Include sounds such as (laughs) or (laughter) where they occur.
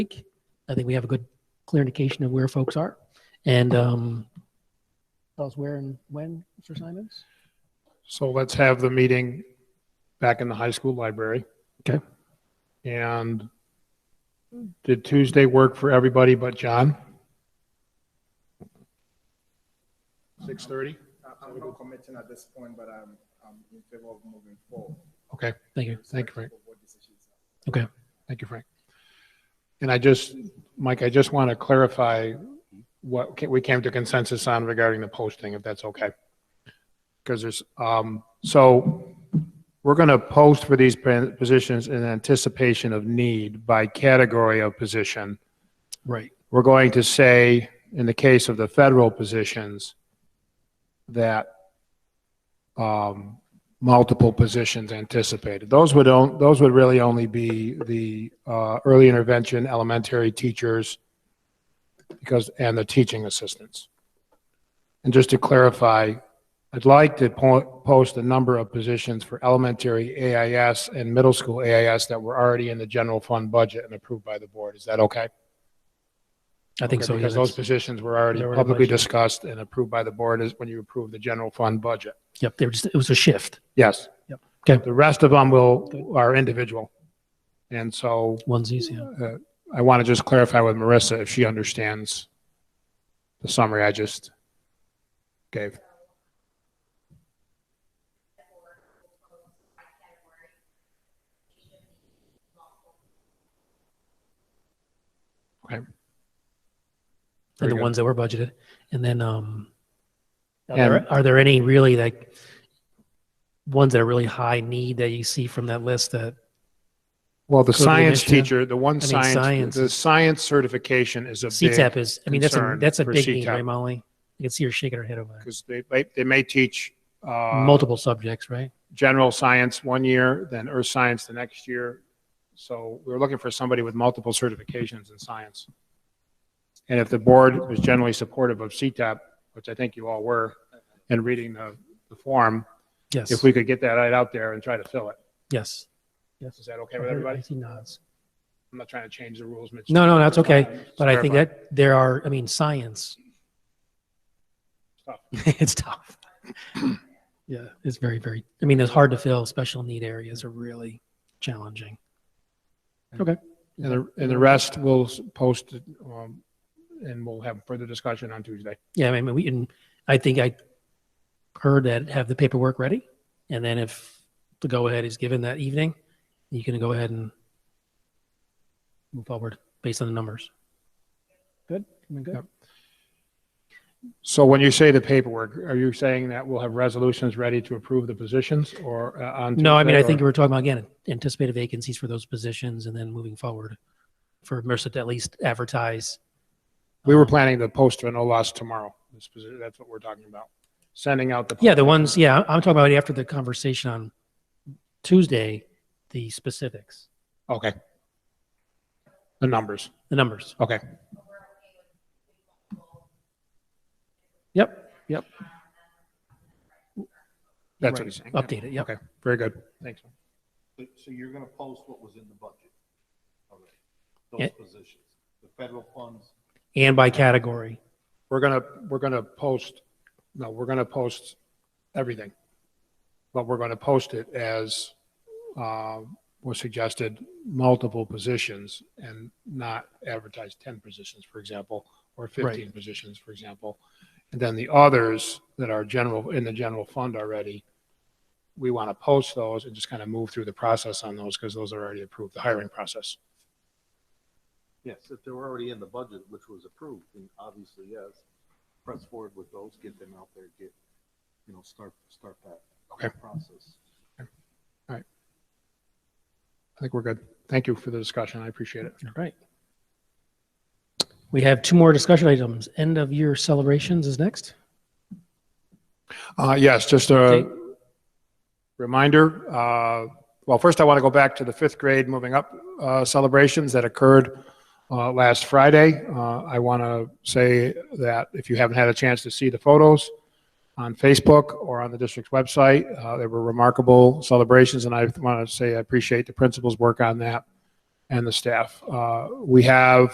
week. I think we have a good, clear indication of where folks are. And um, tell us where and when, Mr. Simons? So let's have the meeting back in the high school library. Okay. And did Tuesday work for everybody but John? Six thirty? I'm not committing at this point, but I'm, I'm in favor of moving forward. Okay, Thank you. thank you, Frank. Of what decisions are. Okay. Thank you, Frank. And I just, Mike, I just want to clarify what ca- we came to consensus on regarding the posting, if that's okay. Because there's, um, so we're going to post for these pa- positions in anticipation of need by category of position. Right. We're going to say, in the case of the federal positions, that um, multiple positions anticipated. Those would, on- those would really only be the uh, early intervention, elementary teachers, because, and the teaching assistants. And just to clarify, I'd like to po- post a number of positions for elementary AIS and middle school AIS that were already in the general fund budget and approved by the board. Is that okay? I think Okay, so. yeah, Because those that's- positions were already They were in the publicly budget. discussed and approved by the board is when you approve the general fund budget. Yep, there was, it was a shift. Yes. Yep. Okay. The rest of them will, are individual. And so Onesies, yeah. uh, I want to just clarify with Marissa if she understands the summary I just gave. Okay. And Very the good. ones that were budgeted. And then, um, are And- there, are there any really like ones that are really high need that you see from that list that, Well, the Could we science mention it? teacher, the one mean, science, science the is- science certification is a big, CTAP is, I mean, that's a, concern that's a for big need, CTAP. right, Molly? You can see her shaking her head over there. because they, they- they may teach uh, Multiple subjects, right? general science one year, then earth science the next year. So we're looking for somebody with multiple certifications in science. And if the board was generally supportive of CTAP, which I think you all were, and reading the, the form, Yes. if we could get that right out there and try to fill it. Yes. Yes. Is that okay with everybody? I see nods. I'm not trying to change the rules. Mitch. No, no, that's okay. But I think Clarify. that there are, I mean, science. Tough. (laughs) It's tough. Yeah, it's very, very, I mean, it's hard to fill. Special need areas are really challenging. And the, and the rest we'll s- post, um, and we'll have further discussion on Tuesday. Yeah, I mean, we can, I think I heard that have the paperwork ready. And then if the go ahead is given that evening, you can go ahead and move forward based on the numbers. Good. I mean, good. Yep. So when you say the paperwork, are you saying that we'll have resolutions ready to approve the positions or uh, on? No, I mean, Tuesday, I or- think we're talking about, again, anticipated vacancies for those positions and then moving forward for MRSA to at least advertise. We were um, planning to post a no loss tomorrow. This posi- That's what we're talking about. Sending out the. Yeah, the ones, yeah, I'm talking about after the conversation on Tuesday, the specifics, Okay. The numbers. the numbers. Okay. Yep, yep, That's what Right. he's saying. update it, yep. Okay, very good. Thanks. So so you're gonna post what was in the budget already, Yeah. those positions, the federal funds, And by category. We're gonna, we're gonna post, no, we're gonna post everything. But we're gonna post it as, uh, was suggested, multiple positions and not advertise ten positions, for example, or fifteen positions, for example. And then the others that are general, in the general fund already, we want to post those and just kind of move through the process on those because those are already approved, the hiring process. yes, if they were already in the budget, which was approved, then obviously, yes. Press forward with those, get them out there, get, you know, start, start that Okay. process. I think we're good. Thank you for the discussion. I appreciate it. All right. We have two more discussion items. End of year celebrations is next. Uh, Yes, just Okay. a reminder. uh, Well, first I want to go back to the fifth grade moving up uh, celebrations that occurred uh, last Friday. Uh, I want to say that if you haven't had a chance to see the photos on Facebook or on the district's website, uh, they were remarkable celebrations, and I want to say I appreciate the principal's work on that and the staff. Uh, We have